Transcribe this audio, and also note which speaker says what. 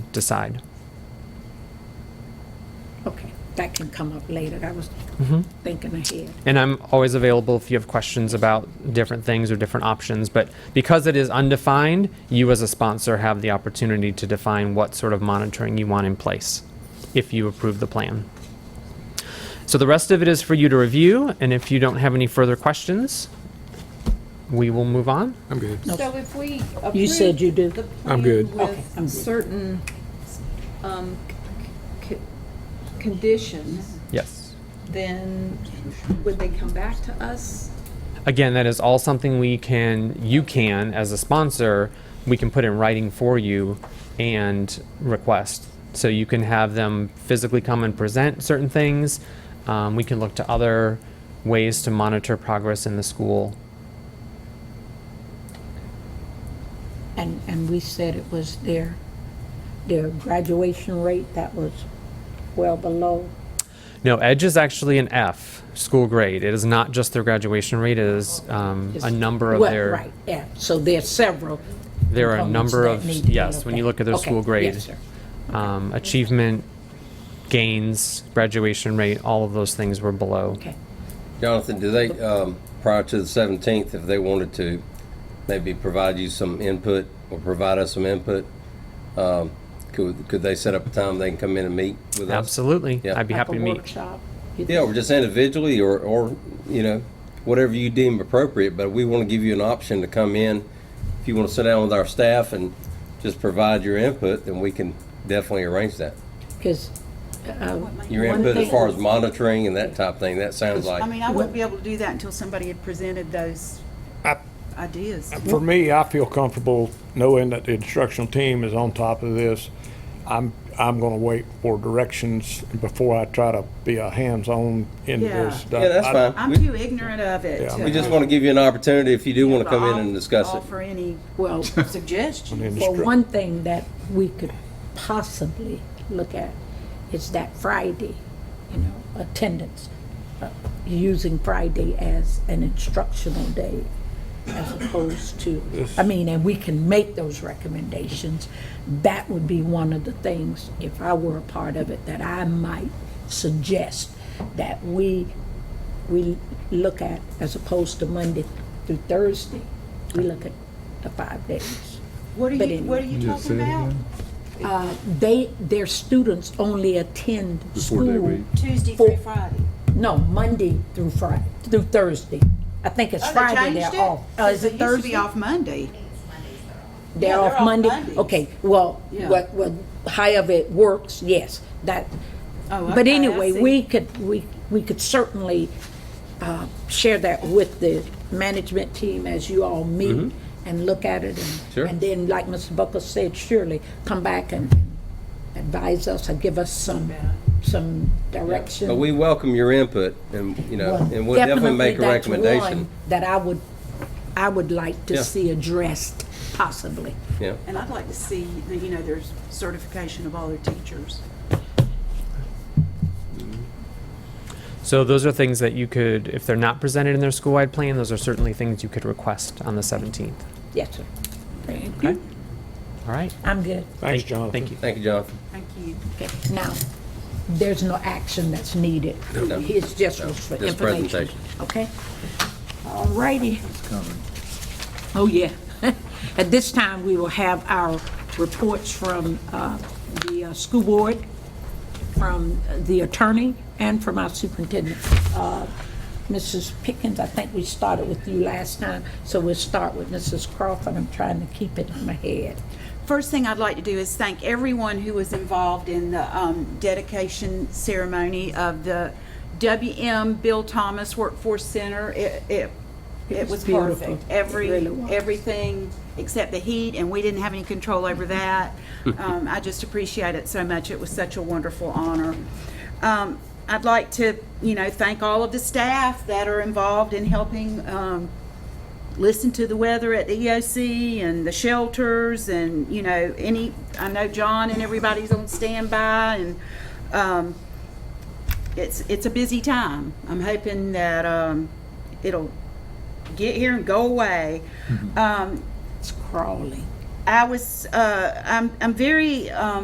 Speaker 1: decide.
Speaker 2: Okay, that can come up later. I was
Speaker 1: Mm-hmm.
Speaker 2: thinking ahead.
Speaker 1: And I'm always available if you have questions about different things or different options. But because it is undefined, you as a sponsor have the opportunity to define what sort of monitoring you want in place if you approve the plan. So the rest of it is for you to review. And if you don't have any further questions, we will move on.
Speaker 3: I'm good.
Speaker 4: So if we approve.
Speaker 2: You said you do.
Speaker 4: the
Speaker 3: I'm good.
Speaker 4: plan
Speaker 2: Okay, I'm good.
Speaker 4: With certain, um, c- c- conditions,
Speaker 1: Yes.
Speaker 4: then would they come back to us?
Speaker 1: Again, that is all something we can, you can, as a sponsor, we can put in writing for you and request. So you can have them physically come and present certain things. Um, we can look to other ways to monitor progress in the school.
Speaker 2: And, and we said it was their, their graduation rate that was well below.
Speaker 1: No, EDGE is actually an F school grade. It is not just their graduation rate, it is um, a number of
Speaker 2: Well,
Speaker 1: their.
Speaker 2: Right, yeah, so there's several.
Speaker 1: There are a
Speaker 2: components
Speaker 1: number
Speaker 2: that
Speaker 1: of,
Speaker 2: need to be
Speaker 1: yes, when you look
Speaker 2: looked
Speaker 1: at their
Speaker 2: Okay,
Speaker 1: school grade.
Speaker 2: yes, sir.
Speaker 1: um, achievement, gains, graduation rate, all of those things were below.
Speaker 2: Okay,
Speaker 5: Jonathan, do they, um, prior to the 17th, if they wanted to, maybe provide you some input or provide us some input, um, could could they set up a time they can come in and meet with us?
Speaker 1: Absolutely.
Speaker 5: Yeah.
Speaker 1: I'd be
Speaker 2: like a
Speaker 1: happy to meet.
Speaker 2: workshop.
Speaker 5: Yeah, or just individually, or, or, you know, whatever you deem appropriate, but we want to give you an option to come in. If you want to sit down with our staff and just provide your input, then we can definitely arrange that.
Speaker 2: Because,
Speaker 5: Your
Speaker 2: One
Speaker 5: input as
Speaker 2: thing-
Speaker 5: far as monitoring and that type thing, that sounds
Speaker 6: I
Speaker 5: like,
Speaker 6: mean, I wouldn't be able to do that until somebody had presented those ideas.
Speaker 7: For me, I feel comfortable knowing that the instructional team is on top of this. I'm, I'm gonna wait for directions before I try to be a hands-on in
Speaker 6: Yeah.
Speaker 7: this.
Speaker 5: yeah, that's
Speaker 7: I-
Speaker 5: fine.
Speaker 6: I'm
Speaker 5: We-
Speaker 6: too ignorant of it.
Speaker 7: Yeah, I
Speaker 6: to-
Speaker 5: We just want to give you an opportunity if you do want to come in
Speaker 6: I'll-
Speaker 5: and discuss
Speaker 6: I'll
Speaker 5: it.
Speaker 6: Offer any
Speaker 2: well,
Speaker 6: suggestions.
Speaker 2: for one thing that we could possibly look at is that Friday, you know, attendance. uh, Using Friday as an instructional day as opposed to, I mean, and we can make those recommendations. That would be one of the things, if I were a part of it, that I might suggest that we, we look at as opposed to Monday through Thursday. We look at the five days.
Speaker 6: What are
Speaker 2: But
Speaker 6: you,
Speaker 2: anyway.
Speaker 6: what are you talking about?
Speaker 2: they, their students only attend
Speaker 3: Before they
Speaker 2: school.
Speaker 3: leave.
Speaker 8: Tuesday
Speaker 2: For-
Speaker 6: Oh,
Speaker 8: through Friday.
Speaker 2: No, Monday through Friday, through Thursday. I think it's
Speaker 6: Oh, they
Speaker 2: Friday
Speaker 6: changed
Speaker 2: they're off. Uh, is
Speaker 6: It
Speaker 2: it
Speaker 6: used to be
Speaker 2: Thursday?
Speaker 6: off Monday.
Speaker 2: They're
Speaker 6: yeah, they're
Speaker 2: off
Speaker 6: off
Speaker 2: Monday?
Speaker 6: Mondays.
Speaker 2: Okay, well,
Speaker 6: Yeah.
Speaker 2: what, what, however it works, yes, that.
Speaker 6: Oh,
Speaker 2: But
Speaker 6: okay, I
Speaker 2: anyway,
Speaker 6: see.
Speaker 2: we could, we, we could certainly, uh, share that with the management team as you all meet and look at it and.
Speaker 5: Mm-hmm. Sure.
Speaker 2: And then, like Mr. Buckles said, surely come back and advise us or give us some, some direction.
Speaker 5: But we welcome your input and, you know, and we'll definitely make a
Speaker 2: that's
Speaker 5: recommendation.
Speaker 2: one That I would, I would like to
Speaker 5: Yeah.
Speaker 2: see addressed possibly.
Speaker 5: Yeah,
Speaker 6: And I'd like to see, the- you know, there's certification of all their teachers.
Speaker 1: So those are things that you could, if they're not presented in their school-wide plan, those are certainly things you could request on the 17th.
Speaker 2: Yes, sir.
Speaker 1: Okay? All right.
Speaker 2: I'm good.
Speaker 7: Thanks,
Speaker 1: Thank-
Speaker 7: Jonathan.
Speaker 1: Thank you.
Speaker 5: thank you, Jonathan.
Speaker 6: Thank you.
Speaker 2: Okay. Now, there's no action that's needed.
Speaker 5: No.
Speaker 2: His just was for
Speaker 5: Just
Speaker 2: information.
Speaker 5: presentation.
Speaker 2: Okay? All righty. Oh, yeah. At this time, we will have our reports from uh, the uh, school board, from the attorney, and from our superintendent. Uh, Mrs. Pickens, I think we started with you last time, so we'll start with Mrs. Crawford. I'm trying to keep it in my head.
Speaker 6: First thing I'd like to do is thank everyone who was involved in the um, dedication ceremony of the WM Bill Thomas Workforce Center. It, it, it was
Speaker 2: beautiful.
Speaker 6: perfect.
Speaker 2: It
Speaker 6: Every,
Speaker 2: really was.
Speaker 6: everything except the heat, and we didn't have any control over that. Um, I just appreciate it so much. It was such a wonderful honor. Um, I'd like to, you know, thank all of the staff that are involved in helping um, listen to the weather at the EOC and the shelters and, you know, any, I know John and everybody's on standby and, um, it's, it's a busy time. I'm hoping that, um, it'll get here and go away. Um,
Speaker 2: Mm-hmm. It's crawling.
Speaker 6: I was, uh, I'm, I'm very, um,